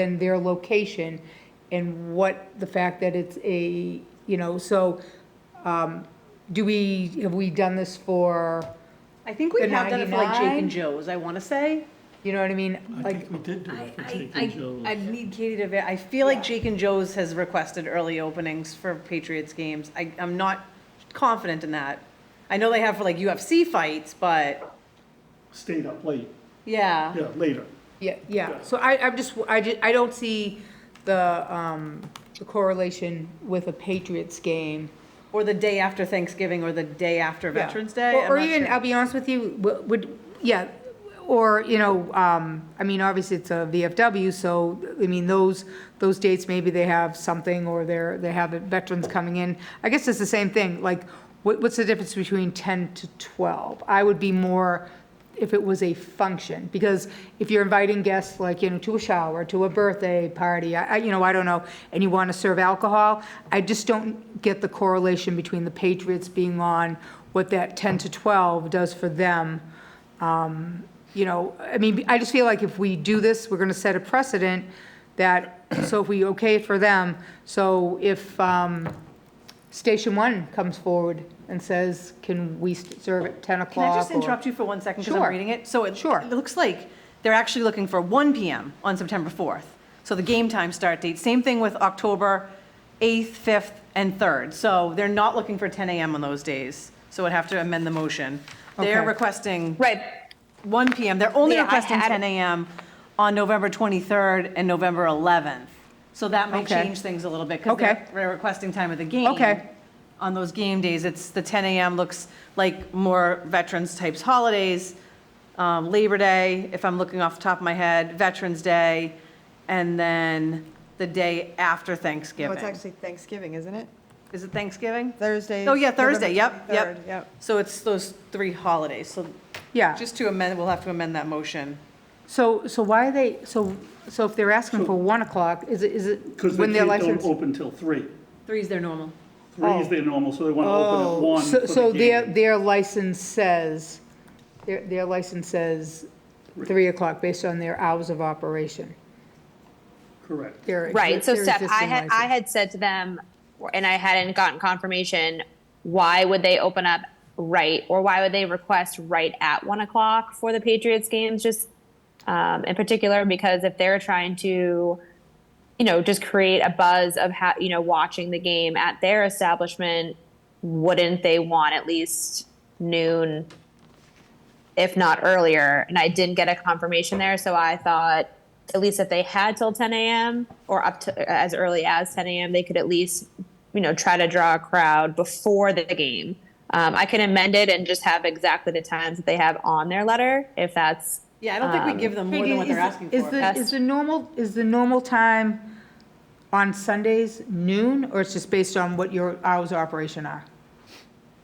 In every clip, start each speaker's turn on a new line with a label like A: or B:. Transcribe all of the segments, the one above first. A: and their location and what, the fact that it's a, you know, so um, do we, have we done this for,
B: I think we
A: The
B: have done it for like Jake
A: 99?
B: and Joe's, I want to say.
A: you know what I mean?
C: I
A: Like,
C: think we did do it for Jake
B: I-
C: and Joe.
B: I need Katie to, ver- I feel like Jake and Joe's has requested early openings for Patriots games. I, I'm not confident in that. I know they have for like UFC fights, but
C: Stayed up late,
B: yeah.
C: yeah, later.
A: yeah, yeah, so I, I'm just, I just, I don't see the, um, the correlation with a Patriots game.
B: Or the day after Thanksgiving or the day after
A: Yeah.
B: Veterans Day.
A: Or-
B: I'm
A: Or
B: not
A: even,
B: sure.
A: I'll be honest with you, w- would, yeah, or, you know, um, I mean, obviously it's a VFW, so, I mean, those, those dates, maybe they have something, or they're, they have veterans coming in. I guess it's the same thing, like, what, what's the difference between 10 to 12? I would be more, if it was a function, because if you're inviting guests, like, you know, to a shower, to a birthday party, I, I- you know, I don't know, and you want to serve alcohol, I just don't get the correlation between the Patriots being on, what that 10 to 12 does for them. Um, You know, I mean, I just feel like if we do this, we're going to set a precedent that, so if we okay it for them, so if um, Station One comes forward and says, can we st- serve at 10 o'clock?
B: Can I just
A: or-
B: interrupt you for one second because
A: Sure.
B: I'm reading it? So it,
A: Sure.
B: it looks like they're actually looking for 1 PM on September 4th. So the game time start date, same thing with October 8th, 5th, and 3rd. So they're not looking for 10 AM on those days. So I'd have to amend the motion. They're
A: Okay.
B: requesting
D: Right,
B: 1 PM. They're only
D: Yeah, I
B: requesting
D: had it.
B: 10 AM on November 23rd and November 11th. So that might
A: Okay.
B: change things a little bit because
A: Okay.
B: they're they're requesting time of the game.
A: Okay.
B: On those game days, it's, the 10 AM looks like more veterans types holidays, um, Labor Day, if I'm looking off the top of my head, Veterans Day, and then the day after
E: Well,
B: Thanksgiving.
E: it's actually Thanksgiving, isn't it?
B: Is it Thanksgiving?
E: Thursday.
B: Oh, yeah,
E: is November
B: Thursday, yep, yep.
E: 23rd, Yep.
B: So it's those three holidays. So
A: Yeah,
B: just to amend, we'll have to amend that motion.
A: so, so why are they, so, so if they're asking for 1 o'clock, is it, is it
C: Because they
A: when their
C: can't,
A: license?
C: don't open till three.
B: Three is their normal.
C: Three is
A: Oh.
C: their normal, so they want to open at one
A: So-
C: for
A: So
C: the
A: their,
C: game.
A: their license says, their, their license says 3 o'clock based on their hours of operation.
C: Correct.
A: Their ex-
D: right. So
A: their
D: Steph, I
A: existing
D: had,
A: license.
D: I had said to them, and I hadn't gotten confirmation, why would they open up right, or why would they request right at one o'clock for the Patriots games, just um, in particular, because if they're trying to, you know, just create a buzz of how, you know, watching the game at their establishment, wouldn't they want at least noon, if not earlier? And I didn't get a confirmation there, so I thought at least if they had till 10 a.m. or up to as early as 10 a.m., they could at least, you know, try to draw a crowd before the game. Um, I can amend it and just have exactly the times that they have on their letter, if that's
B: Yeah, I don't think we give them more than what
A: Peggy,
B: they're
A: Um, is-
B: asking
A: Is
B: for.
A: the, is the normal, is the normal time on Sundays noon, or it's just based on what your hours of operation are?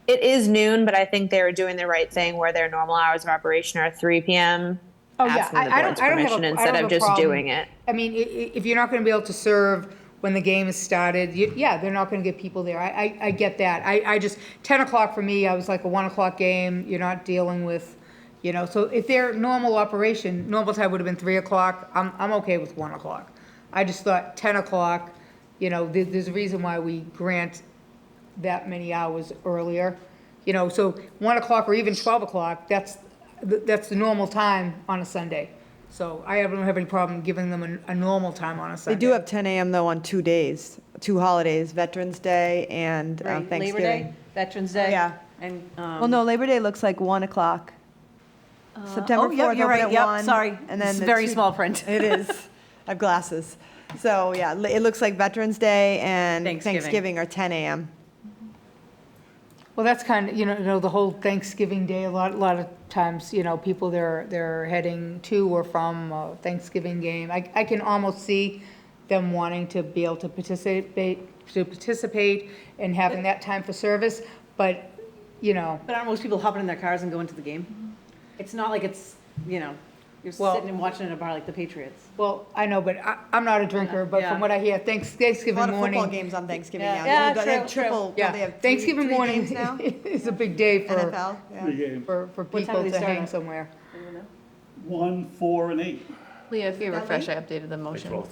D: It is noon, but I think they were doing the right thing where their normal hours of operation are 3 p.m.
A: Oh, yeah.
D: asking
A: I-
D: the
A: I don't-
D: board's
A: I don't have a-
D: permission
A: I
D: instead
A: don't
D: of
A: have a
D: just
A: problem.
D: doing it.
A: I mean, i- i- if you're not gonna be able to serve when the game is started, y- yeah, they're not gonna get people there. I, I, I get that. I, I just, ten o'clock for me, I was like a one o'clock game, you're not dealing with, you know, so if their normal operation, normal time would have been three o'clock, I'm, I'm okay with one o'clock. I just thought ten o'clock, you know, there, there's a reason why we grant that many hours earlier. You know, so one o'clock or even twelve o'clock, that's, th- that's the normal time on a Sunday. So I don't have any problem giving them a, a normal time on a
E: They
A: Sunday.
E: do have 10 AM though on two days, two holidays, Veterans Day and uh,
B: Right, Labor Day,
E: Thanksgiving.
B: Veterans
A: Oh,
B: Day.
E: Yeah.
B: And,
E: Well,
B: um,
E: no, Labor Day looks like 1 o'clock. September
B: oh, yep,
E: 4th,
B: you're right,
E: open
B: yep,
E: at 1.
B: sorry. This
E: and then
B: is
E: the
B: very
E: two-
B: small print.
E: It is. I have glasses. So, yeah, li- it looks like Veterans Day and
B: Thanksgiving.
E: Thanksgiving are 10 AM.
A: Well, that's kind of, you know, you know, the whole Thanksgiving Day, a lot, a lot of times, you know, people they're, they're heading to or from a Thanksgiving game. I, I can almost see them wanting to be able to participate, to participate and having that time for service, but, you know,
B: but aren't most people hopping in their cars and going to the game? It's not like it's, you know, you're
A: Well-
B: sitting and watching at a bar like the Patriots.
A: Well, I know, but I, I'm not a drinker, but
B: Yeah.
A: from what I hear, thanks-
E: A lot
A: Thanksgiving
E: of football
A: morning.
E: games on Thanksgiving
B: Yeah.
E: now.
B: Yeah,
E: They have
B: true, true.
E: triple-
A: Yeah,
E: they have three-
A: Thanksgiving
E: three
A: morning
E: games now?
A: is a big day for,
E: NFL, yeah.
C: The game,
A: for, for
B: time
A: people
B: do they
A: to
B: start
A: hang
B: at?
A: somewhere.
C: one, four, and eight.
F: Leah, if you refresh, I updated the motion.